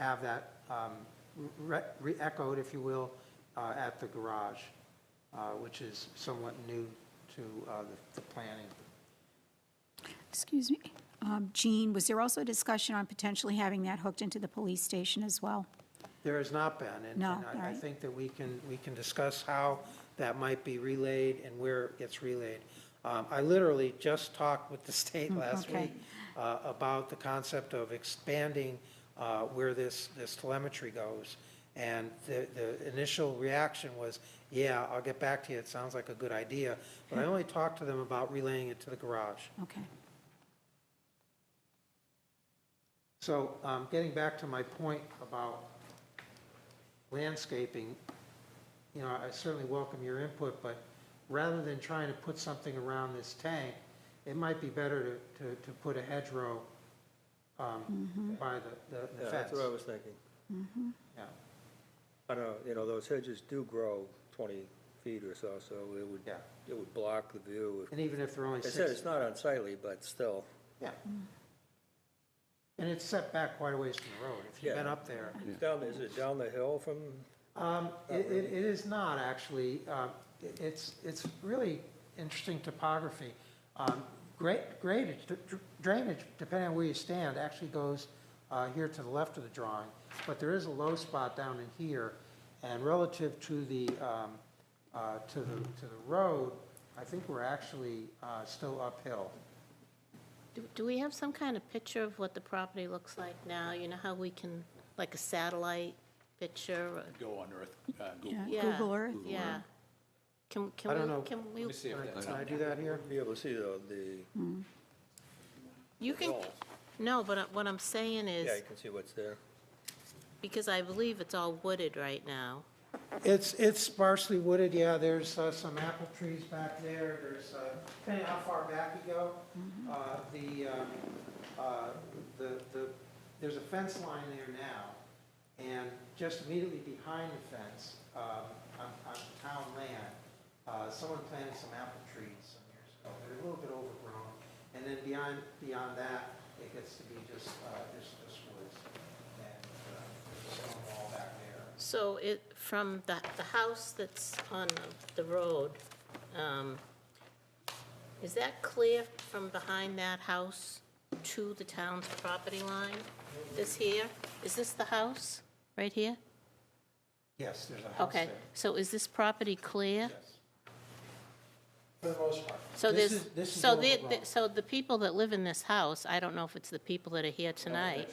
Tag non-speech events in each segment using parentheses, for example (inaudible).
have that um, re- re-echoed, if you will, uh, at the garage, uh, which is somewhat new to uh, the- the planning. Excuse me. Um, Jean, was there also a discussion on potentially having that hooked into the police station as well? There has not been. and- No, And all I- I right. think that we can, we can discuss how that might be relayed and where it gets relayed. Um, I literally just talked with the (laughs) state last Mm, okay. week uh, about the concept of expanding uh, where this, this telemetry goes. And the, the initial reaction was, yeah, I'll get back to you, it sounds like a good idea. (laughs) But I only talked to them about relaying it to the garage. Okay. So um, getting back to my point about landscaping, you know, I certainly welcome your input, but rather than trying to put something around this tank, it might be better to, to, to put a hedgerow um, by the- the, the Yeah, fence. that's what I was thinking. Yeah. I don't know, you know, those hedges do grow 20 feet or so, so it would, Yeah. it would block the view. And even if they're only They said six, it's not unsightly, but still, yeah. And it's set back quite a ways from the road. If you've been Yeah. up there, It's down, is it down the hill from, Um, It it- it is not, actually. Uh, it- It's, it's really interesting topography. Um, gra- Gradage, dr- drainage, depending on where you stand, actually goes uh, here to the left of the drawing, but there is a low spot down in here, and relative to the, um, uh, to the, to the road, I think we're actually uh, still uphill. Do- Do we have some kind of picture of what the property looks like now? You know how we can, like a satellite picture? or- go on Earth, uh, Google. Yeah, Yeah, Google Earth? Yeah. Can, I can don't know. we, can we, see if that's Can I do that here? be able to see the, the, you can, no, but uh, what I'm saying yeah, you is, can see what's there. because I believe it's all wooded right now. It's, it's sparsely wooded, yeah, there's uh, some apple trees back there, there's, uh, depending how far back you go, uh, the, um, uh, the, the, there's a fence line there now, and just immediately behind the fence, um, on, on town land, uh, someone planted some apple trees some years ago, they're a little bit overgrown, and then beyond, beyond that, it gets to be just, uh, just, just woods, and, uh, there's a stone wall back there. So it, from the, the house that's on the- the road, um, is that clear from behind that house to the town's property line? This here, is this the house, right here? Yes, there's a house there. Okay, so is this property clear? Yes. For the most part. So This there's, is- this is so all the, wrong. the- so the people that live in this house, I don't know if it's the people that are here Oh, tonight.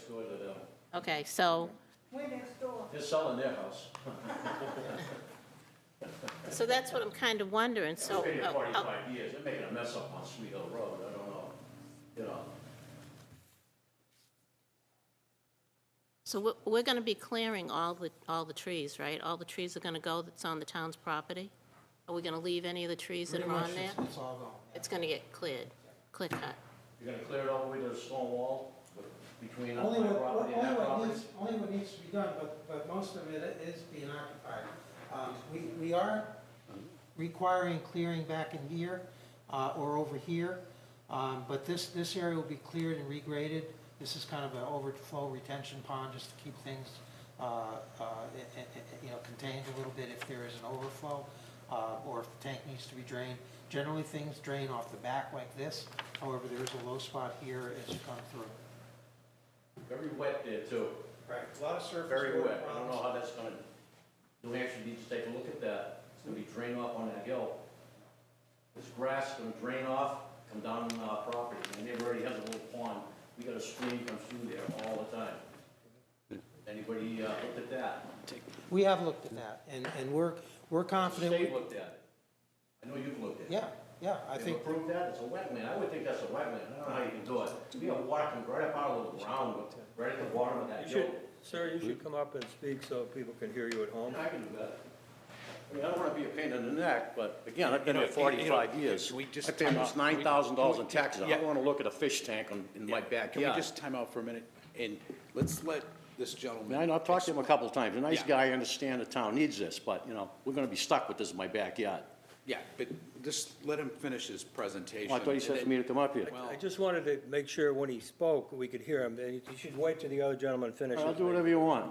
Okay, so, They're selling their house. so that's what I'm kind of wondering, so. It's been here uh, uh, forty-five years, they're making a mess up on Sweet Hill Road, I don't know, you know. So we're, we're gonna be clearing all the, all the trees, right? All the trees are gonna go that's on the town's property? Are we gonna leave any of the trees that Pretty are much on there? it's- It's all gone. yeah. It's gonna get cleared, clear cut. You're gonna clear it all the way to the stone wall with- between my Only what, property and only that what property? needs, only what needs to be done, but, but most of it is being occupied. Um, we, we are requiring clearing back in here, uh, or over here. Um, but this, this area will be cleared and regraded. This is kind of an overflow retention pond, just to keep things, uh, uh, i- i- i- you know, contained a little bit if there is an overflow, uh, or if the tank needs to be drained. Generally, things drain off the back like this. However, there is a low spot here as you come through. Very wet there too, Right, a lot of surface. very water wet, I don't know problems. how that's gonna, New Hampshire needs to take a look at that, it's gonna be drained off on that hill. This grass is gonna drain off, come down on our property, my neighbor already has a little pond, we got a stream comes through there all the time. Anybody, uh, looked at that? We have looked at that, and, and we're, we're confident. we- State looked at it. I know you've looked at it. Yeah, yeah, I They've think, approved that, it's a wetland, I would think that's a wetland, I don't know how you can do it. We have water coming right up out of the ground, right at the bottom of that You hill. should, sir, you should come up and speak so people can hear you at home. I can do that. I mean, I don't wanna be a pain in the neck, but again, I've been You know, here forty-five you know, years. we just I pay almost time out. nine thousand dollars in We- taxes, I yeah. don't wanna look at a fish tank on, in my backyard. Can we just time out for a minute and let's let this I mean, I gentleman? know, I've talked to him a couple of times, a nice Yeah. guy, I understand the town needs this, but, you know, we're gonna be stuck with this in my backyard. Yeah, but just let him finish his presentation. Well, I thought you said for me to come up here. Well- I just wanted to make sure when he spoke, we could hear him, and you should wait till the other gentleman finishes. I'll do whatever you want.